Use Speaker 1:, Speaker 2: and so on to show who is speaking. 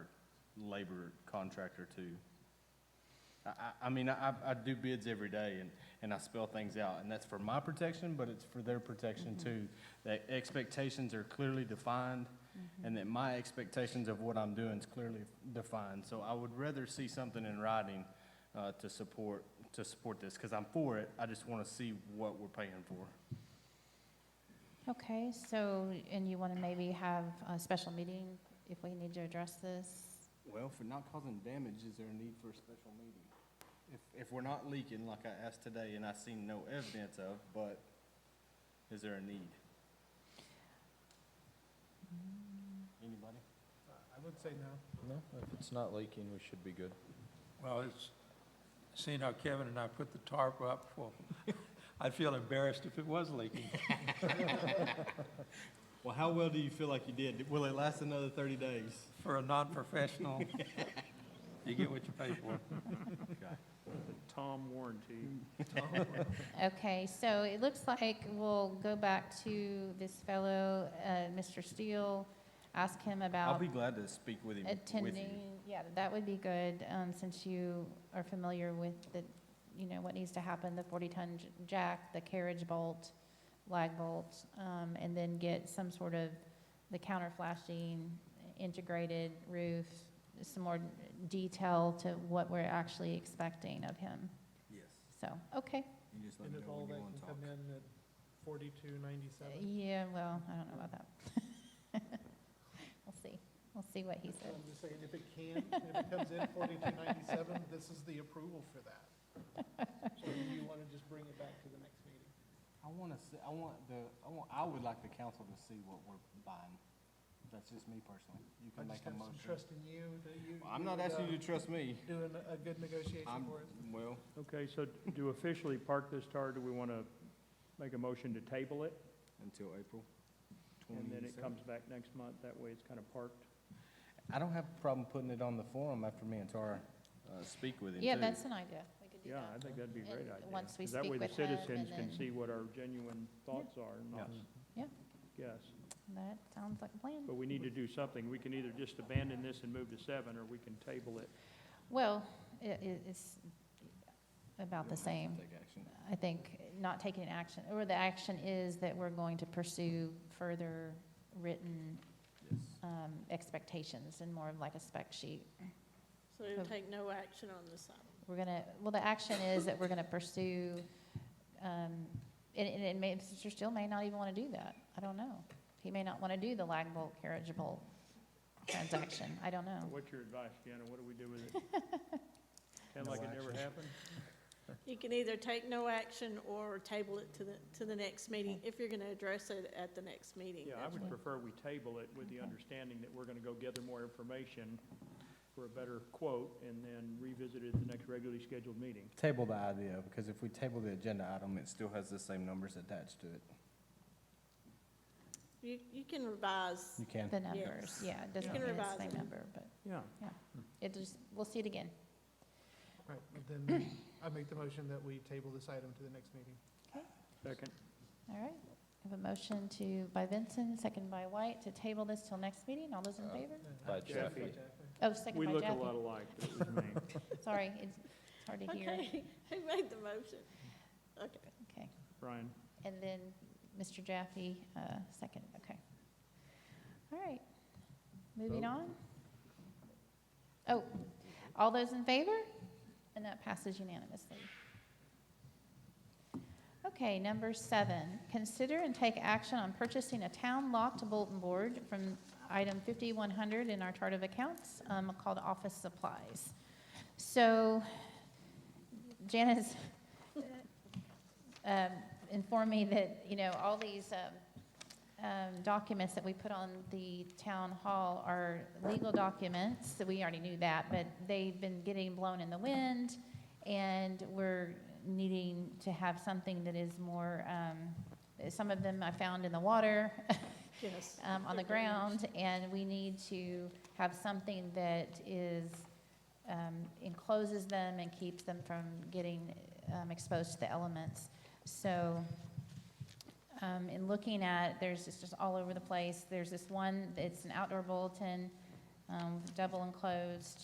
Speaker 1: labor contractor too. I, I, I mean, I, I do bids every day and, and I spell things out, and that's for my protection, but it's for their protection too. That expectations are clearly defined, and that my expectations of what I'm doing is clearly defined. So I would rather see something in writing, uh, to support, to support this, because I'm for it, I just want to see what we're paying for.
Speaker 2: Okay, so, and you want to maybe have a special meeting if we need to address this?
Speaker 1: Well, for not causing damage, is there a need for a special meeting? If, if we're not leaking like I asked today and I seen no evidence of, but is there a need? Anybody?
Speaker 3: I would say no.
Speaker 4: No, if it's not leaking, we should be good.
Speaker 3: Well, it's, seeing how Kevin and I put the tarp up, well, I'd feel embarrassed if it was leaking.
Speaker 1: Well, how well do you feel like you did? Will it last another thirty days?
Speaker 3: For a non-professional, you get what you pay for.
Speaker 5: Tom warranty.
Speaker 1: Mm.
Speaker 2: Okay, so it looks like we'll go back to this fellow, uh, Mr. Steele, ask him
Speaker 1: I'll
Speaker 2: about
Speaker 1: be glad to speak with him, with you.
Speaker 2: attending. Yeah, that would be good, um, since you are familiar with the, you know, what needs to happen, the 40-ton j- jack, the carriage bolt, lag bolt, um, and then get some sort of, the counter flashing, integrated roof, some more detail to what we're actually expecting of him.
Speaker 1: Yes.
Speaker 2: So, okay,
Speaker 1: You just let
Speaker 6: And
Speaker 1: me
Speaker 6: if
Speaker 1: know
Speaker 6: all
Speaker 1: when you
Speaker 6: that
Speaker 1: wanna
Speaker 6: can
Speaker 1: talk.
Speaker 6: come in at forty-two ninety-seven?
Speaker 2: yeah, well, I don't know about that. We'll see, we'll see what he says.
Speaker 6: I'm just saying, if it can, if it comes in forty-two ninety-seven, this is the approval for that. Or do you wanna just bring it back to the next meeting?
Speaker 1: I wanna see, I want the, I want, I would like the council to see what we're buying. That's just me personally. You
Speaker 6: I
Speaker 1: can make
Speaker 6: just
Speaker 1: a
Speaker 6: have some
Speaker 1: motion.
Speaker 6: trust in you, that you.
Speaker 1: Well, I'm not asking you to trust me.
Speaker 6: Doing a good negotiation
Speaker 1: I'm,
Speaker 6: for us.
Speaker 1: well,
Speaker 5: Okay, so to officially park this car, do we want to make a motion to table it?
Speaker 1: until April
Speaker 5: And then it
Speaker 1: 27th.
Speaker 5: comes back next month, that way it's kind of parked?
Speaker 1: I don't have a problem putting it on the forum after me and Tara, uh, speak with him
Speaker 2: Yeah,
Speaker 1: too.
Speaker 2: that's an idea, we could do
Speaker 5: Yeah, I
Speaker 2: that.
Speaker 5: think that'd be a great
Speaker 2: And
Speaker 5: idea.
Speaker 2: once we
Speaker 5: 'Cause that
Speaker 2: speak
Speaker 5: way the
Speaker 2: with him, and
Speaker 5: citizens can
Speaker 2: then-
Speaker 5: see what our genuine thoughts are, and not.
Speaker 2: Yeah.
Speaker 5: Yes,
Speaker 2: That sounds like a plan.
Speaker 5: but we need to do something. We can either just abandon this and move to seven, or we can table it.
Speaker 2: Well, i- i it's about the same.
Speaker 1: Take action.
Speaker 2: I think not taking action, or the action is that we're going to pursue further written
Speaker 1: Yes.
Speaker 2: um, expectations and more of like a spec sheet.
Speaker 7: So you'll
Speaker 2: Of-
Speaker 7: take no action on this item?
Speaker 2: We're gonna, well, the action is that we're gonna pursue, um, and, and it may, Mr. Steele may not even wanna do that. I don't know. He may not wanna do the lag bolt, carriage bolt transaction. I don't know.
Speaker 5: What's your advice, Jenna? What do we do with it? Kind of like it never happened?
Speaker 7: You can either take no action or table it to the, to the next meeting, if you're gonna address it at the next meeting.
Speaker 5: Yeah, I
Speaker 7: That's
Speaker 5: would
Speaker 7: what-
Speaker 5: prefer we table it with the
Speaker 2: Okay.
Speaker 5: understanding that we're gonna go gather more information for a better quote and then revisit it at the next regularly scheduled meeting.
Speaker 1: Table the idea, because if we table the agenda item, it still has the same numbers attached to it.
Speaker 7: You, you can revise,
Speaker 1: You can.
Speaker 2: The numbers,
Speaker 7: Yes.
Speaker 2: yeah, it doesn't
Speaker 7: can
Speaker 2: mean it's
Speaker 7: revise
Speaker 2: the same
Speaker 7: it.
Speaker 2: number, but
Speaker 5: Yeah.
Speaker 2: it just, we'll see it again.
Speaker 6: Right, then I make the motion that we table this item to the next meeting.
Speaker 5: Second,
Speaker 2: All right, I have a motion to, by Vincent, second by White, to table this till next meeting. All those in
Speaker 4: Uh,
Speaker 2: favor?
Speaker 4: By
Speaker 5: Jaffe.
Speaker 2: Oh, second
Speaker 5: we
Speaker 2: by
Speaker 5: look a lot
Speaker 2: Jackie.
Speaker 5: alike, but it was me.
Speaker 2: Sorry, it's it's hard to hear.
Speaker 7: okay, who made the motion? Okay,
Speaker 2: Okay,
Speaker 5: Brian,
Speaker 2: and then Mr. Jaffe, uh, second, okay. All right, moving on. Oh, all those in favor? And that passes unanimously. Okay, number seven, consider and take action on purchasing a town locked bulletin board from item 5100 in our chart of accounts um, called office supplies. So Janice um, informed me that, you know, all these um, um, documents that we put on the town hall are legal documents, so we already knew that, but they've been getting blown in the wind, and we're needing to have something that is more, um, some of them I found in the water,
Speaker 7: yes.
Speaker 2: um, on the
Speaker 7: They're very
Speaker 2: ground, and we need to have something that is, um, encloses them and keeps them from getting, um, exposed to the elements. So, um, in looking at, there's, it's just all over the place, there's this one, it's an outdoor bulletin, um, double enclosed